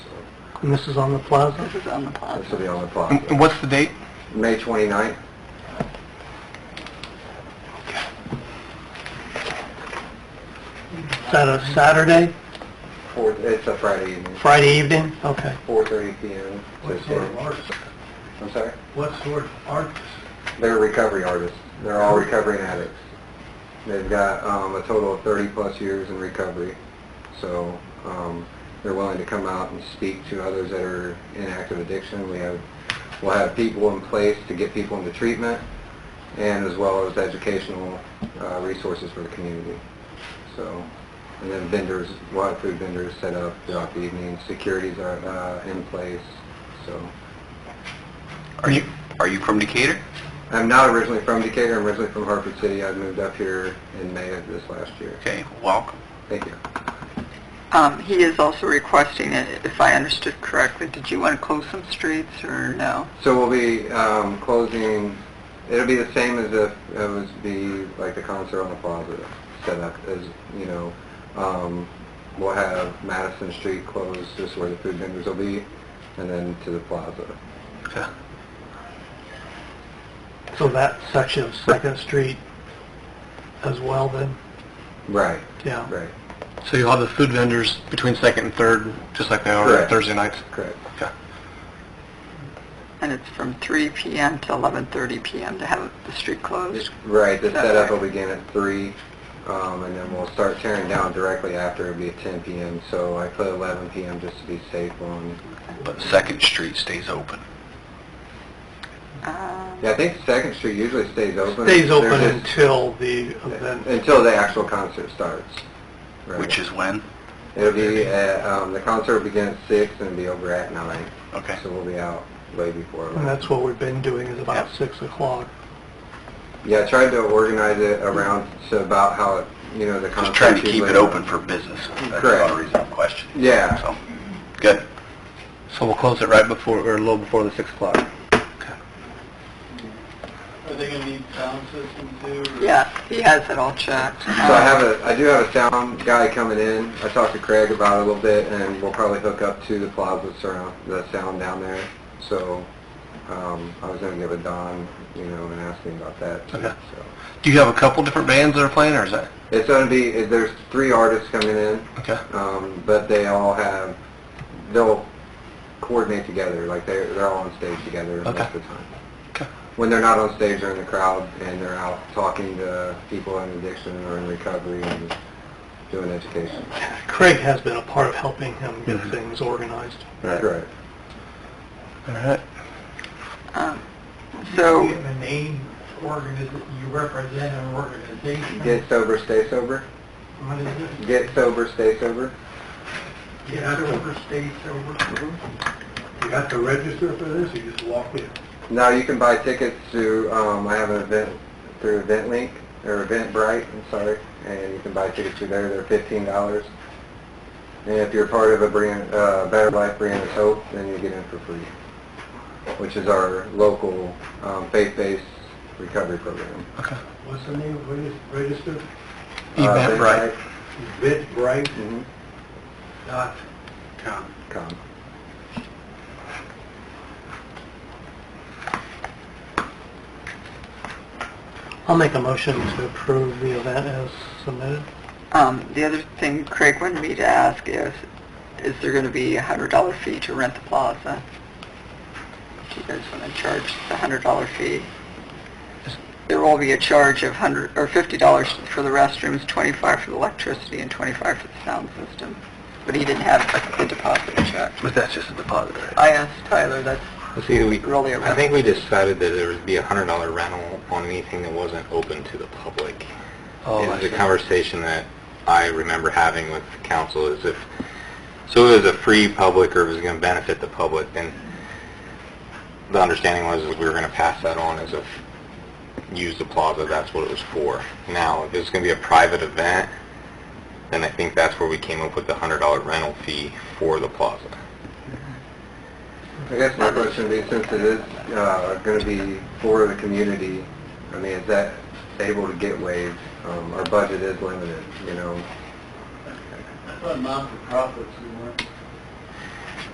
And this is on the plaza? This is on the plaza. This will be on the And plaza. and what's the date? May 29th? Is that a Saturday, Four, it's a Friday evening, Friday evening? Okay. 4:30 PM. to six. artist? I'm sorry? What sort of artist? They're recovery artists. They're all recovering addicts. They've got um, a total of 30-plus years in recovery. So um, they're willing to come out and speak to others that are in active addiction. We have, we'll have people in place to get people into treatment and as well as educational uh, resources for the community. So, and then vendors, we'll have food vendors set up throughout the evening. Securities are uh, in place, so. Are you, are you from Decatur? I'm not originally from Decatur, I'm originally from Hartford City. I moved up here in May of this last year. Okay, welcome. Thank you. Um, he is also requesting, it, if I understood correctly, did you want to close some streets or no? So we'll be um, closing, it'll be the same as if it was be like the concert on the plaza set up as, you know, um, we'll have Madison Street closed, just where the food vendors will be, and then to the plaza. So that section of Second Street as well then? Right, Yeah. right, So you'll have the food vendors between second and third, just like they Correct. nights? correct. And it's from 3 p.m. to 11:30 p.m. to have the street closed? Right, the That's setup right. will begin at three, um, and then we'll start tearing down directly after, it'll be at ten PM, so I put eleven PM just to be safe on, But Second Street stays open. Um, yeah, I think Second Street usually stays open. Stays open They're just- until the event. Until the actual concert starts. Right. is when? It'll be, at, um, the concert will begin at six and be over at nine, Okay. so we'll be out way before. And Uh-huh. that's what we've been doing is about Yeah. 6 o'clock. Yeah, I tried to organize it around to about how, it you know, the concert. usually- for business. That's the only reason I'm questioning. Yeah. So, good. So we'll close it right before, or a little before the six o'clock. Are they going to need sound system too? Yeah, he has it all checked. So I have a, I do have a sound guy coming in. I talked to Craig about it a little bit, and we'll probably hook up to the plaza surround, the sound down there. So, um, I was gonna give it Don, you know, and ask him about that. too, Okay. So Do you have a couple different bands that are playing, or is that? It's gonna be, eh, there's three artists coming in, Okay. um, but they all have, they'll coordinate together, like they're, they're all on stage together most Okay. of the time. Okay. When they're not on stage, they're in the crowd, and they're out talking to people in addiction or in recovery and doing education. Craig has been a part of helping him get things organized. Correct. All right. Um, So, a name, you represent an organization? Get sober, stay sober. What is it? Get sober, stay sober. Get over, stay sober. You have to register for this, or you just walk in? Now you can buy tickets to, um, I have an event through EventLink, or Eventbrite, I'm sorry, and you can buy tickets through there. They're fifteen dollars. And if you're part of a brand, uh, Better Life Brand of Hope, then you get in for free, which is our local, um, faith-based recovery program. Okay. What's the name, what is, register? Uh, Eventbrite. Eventbrite Mhm. dot com. Come. I'll make a motion to approve the event as submitted. um, the other thing Craig wanted me to ask is, is there going to be a $100 fee to rent the plaza? Do you guys want to charge the $100 fee? There will be a charge of 100, or $50 for the restrooms, 25 for the electricity, and 25 for the sound system. But he didn't have the deposit check. But that's just a deposit, right? I asked Tyler, that's Let's see, we, really a rental. I think we decided that there would be a hundred dollar rental on anything that wasn't open to the public. Oh, it I was a see. conversation that I remember having with the council is if, so it was a free public or it was going to benefit the public, and the understanding was is we were going to pass that on as if use the plaza, that's what it was for. Now, if it's going to be a private event, then I think that's where we came up with the hundred dollar rental fee for the plaza. I guess my question would be, since it is going to be for the community, I mean, is that able to get waived? Um, Our budget is limited, you know? I thought non-for-profits, we weren't